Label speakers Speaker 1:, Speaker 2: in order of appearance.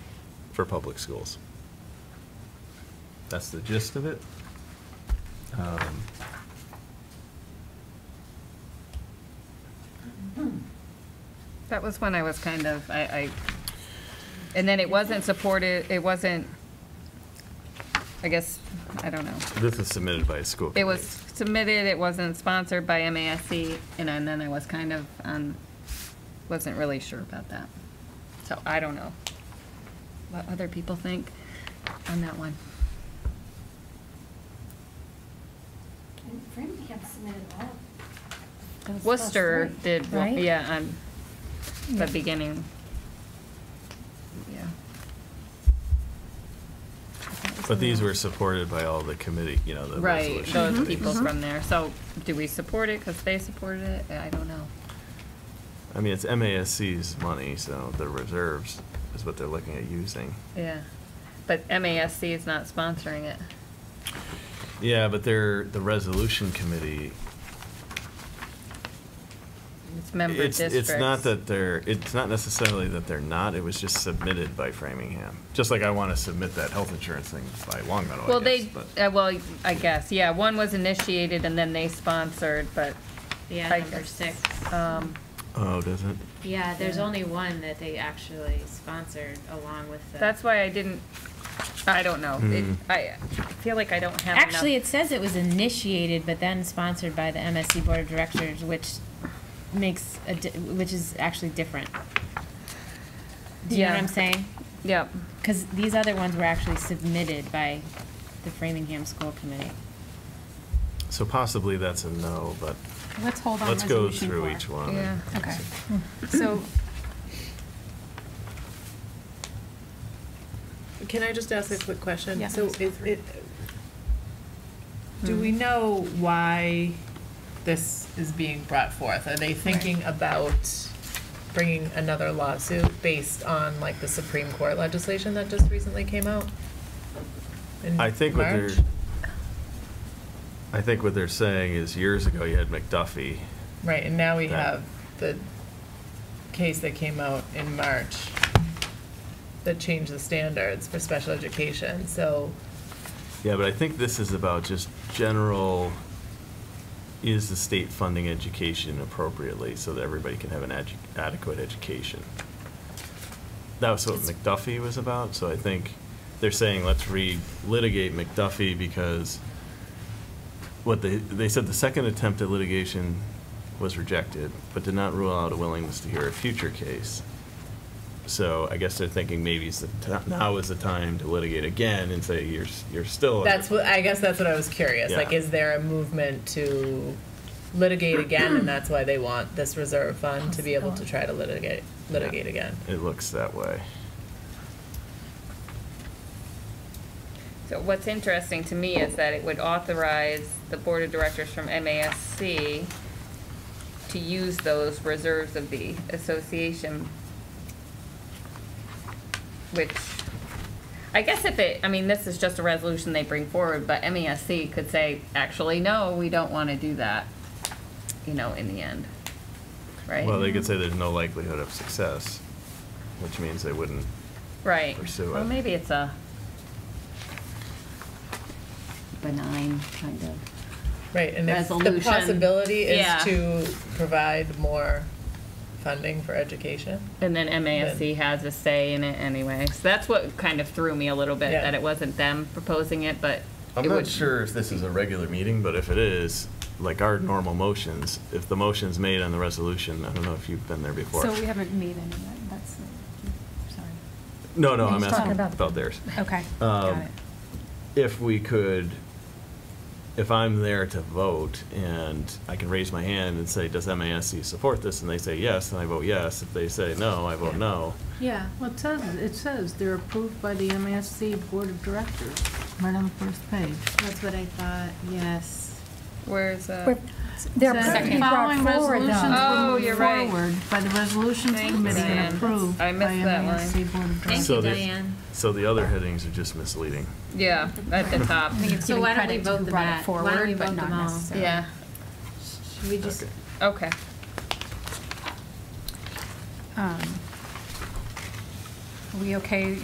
Speaker 1: for public schools. That's the gist of it. Um,
Speaker 2: That was when I was kind of, I, I, and then it wasn't supported, it wasn't, I guess, I don't know.
Speaker 1: This is submitted by a school committee.
Speaker 2: It was submitted, it wasn't sponsored by MASC, and then then I was kind of, um, wasn't really sure about that. So I don't know what other people think on that one.
Speaker 3: And Framingham submitted all.
Speaker 4: That's- that's
Speaker 2: Worcester
Speaker 4: right,
Speaker 2: did,
Speaker 4: right?
Speaker 2: yeah, on the
Speaker 4: Yeah.
Speaker 2: beginning. Yeah.
Speaker 4: That was
Speaker 1: But
Speaker 4: the
Speaker 1: these
Speaker 4: one.
Speaker 1: were supported by all the committee, you know, the
Speaker 2: Right,
Speaker 1: resolution
Speaker 2: those
Speaker 1: committees.
Speaker 2: people from there. So do we support it because they supported it? I don't know.
Speaker 1: I mean, it's MASC's money, so the reserves is what they're looking at using.
Speaker 2: Yeah. But MASC is not sponsoring it.
Speaker 1: Yeah, but they're, the resolution committee.
Speaker 2: It's member
Speaker 1: it's-
Speaker 2: districts.
Speaker 1: It's not that they're, it's not necessarily that they're not, it was just submitted by Framingham. Just like I want to submit that health insurance thing by Longmeadow, I
Speaker 2: Well, they,
Speaker 1: guess, but-
Speaker 2: uh, well, I guess, yeah, one was initiated and then they sponsored, but,
Speaker 5: Yeah,
Speaker 2: I
Speaker 5: number
Speaker 2: guess.
Speaker 5: six.
Speaker 2: um,
Speaker 1: Oh, does it?
Speaker 5: Yeah, there's
Speaker 2: Yeah.
Speaker 5: only one that they actually sponsored along with the.
Speaker 2: that's why I didn't, I don't know. It-
Speaker 1: Hmm.
Speaker 2: I I feel like I don't have enough.
Speaker 5: Actually, it says it was initiated, but then sponsored by the MSC Board of Directors, which makes, a di- which is actually different. Do you know
Speaker 2: Yeah.
Speaker 5: what I'm saying?
Speaker 2: Yep.
Speaker 5: Because these other ones were actually submitted by the Framingham School Committee.
Speaker 1: So possibly that's a no, but
Speaker 4: Let's hold on.
Speaker 1: let's go
Speaker 4: resolution
Speaker 1: through
Speaker 4: four.
Speaker 1: each one. and
Speaker 2: Yeah.
Speaker 4: Okay, so,
Speaker 6: Can I just ask a quick question?
Speaker 4: Yeah.
Speaker 6: So is it, do we know why this is being brought forth? Are they thinking about bringing another lawsuit based on like the Supreme Court legislation that just recently came out? in
Speaker 1: I think what they're,
Speaker 6: March?
Speaker 1: I think what they're saying is years ago you had McDuffie.
Speaker 6: Right, and now we
Speaker 1: That-
Speaker 6: have the case that came out in March that changed the standards for special education, so.
Speaker 1: Yeah, but I think this is about just general, is the state funding education appropriately so that everybody can have an edu- adequate education? That was what McDuffie was about, so I think they're saying let's relitigate McDuffie because what they, they said the second attempt at litigation was rejected, but did not rule out a willingness to hear a future case. So I guess they're thinking maybe it's the ti- now is the time to litigate again and say you're s- you're still.
Speaker 6: That's what, I guess that's what I was curious, like,
Speaker 1: Oh, Yeah.
Speaker 6: is there a movement to litigate again, and that's why they want this reserve fund to be able to try to litigate, litigate again?
Speaker 1: It looks that way.
Speaker 2: So what's interesting to me is that it would authorize the board of directors from MASC to use those reserves of the association. Which, I guess if it, I mean, this is just a resolution they bring forward, but MASC could say, actually, no, we don't want to do that, you know, in the end, right?
Speaker 1: Well, they could say there's no likelihood of success, which means they wouldn't.
Speaker 2: Right.
Speaker 1: pursue it.
Speaker 2: Well, maybe it's a benign kind of.
Speaker 6: Right, and if the
Speaker 2: Resolution.
Speaker 6: possibility
Speaker 2: Yeah.
Speaker 6: is to provide more funding for education?
Speaker 2: And then MASC has a say in it anyway. So that's what kind of threw me a little bit,
Speaker 6: Yeah.
Speaker 2: that it wasn't them proposing it, but
Speaker 1: I'm
Speaker 2: it
Speaker 1: not
Speaker 2: would-
Speaker 1: sure if this is a regular meeting, but if it is, like our normal motions, if the motion's made on the resolution, I don't know if you've been there before.
Speaker 4: so we haven't made any, of that. that's, the- sorry.
Speaker 1: no, no,
Speaker 4: We're
Speaker 1: I'm
Speaker 4: just
Speaker 1: asking
Speaker 4: talking about-
Speaker 1: about theirs.
Speaker 4: Okay,
Speaker 1: Um,
Speaker 4: got it.
Speaker 1: if we could, if I'm there to vote and I can raise my hand and say, does MASC support this? And they say yes, and I vote yes. If they say no, I vote no.
Speaker 7: Yeah, well, it says, it says they're approved by the MSC Board of Directors, right on the first page.
Speaker 3: That's what I thought, yes.
Speaker 2: Where's, uh,
Speaker 4: We're- They're
Speaker 7: Says
Speaker 4: perfectly
Speaker 7: the
Speaker 4: brought
Speaker 7: Following
Speaker 4: forward,
Speaker 7: resolutions
Speaker 4: though.
Speaker 2: Oh,
Speaker 7: were
Speaker 2: you're
Speaker 7: moved
Speaker 2: right.
Speaker 7: forward by the Resolutions
Speaker 2: Thanks,
Speaker 7: Committee
Speaker 2: Diane.
Speaker 7: and approved
Speaker 2: I
Speaker 7: by
Speaker 2: missed that line.
Speaker 7: MSC Board of
Speaker 5: Thank
Speaker 7: Directors.
Speaker 1: So
Speaker 5: you,
Speaker 1: the-
Speaker 5: Diane.
Speaker 1: So the other headings are just misleading.
Speaker 2: yeah, at the top.
Speaker 4: I think it's
Speaker 5: So
Speaker 4: giving
Speaker 5: why don't we
Speaker 4: credit to
Speaker 5: vote
Speaker 4: who
Speaker 5: them
Speaker 4: brought it
Speaker 5: at- why don't we
Speaker 4: forward, but
Speaker 5: vote
Speaker 4: not
Speaker 5: them all?
Speaker 4: necessarily.
Speaker 2: Yeah,
Speaker 3: Should we just,
Speaker 1: Okay.
Speaker 2: okay.
Speaker 4: Um, Are we okay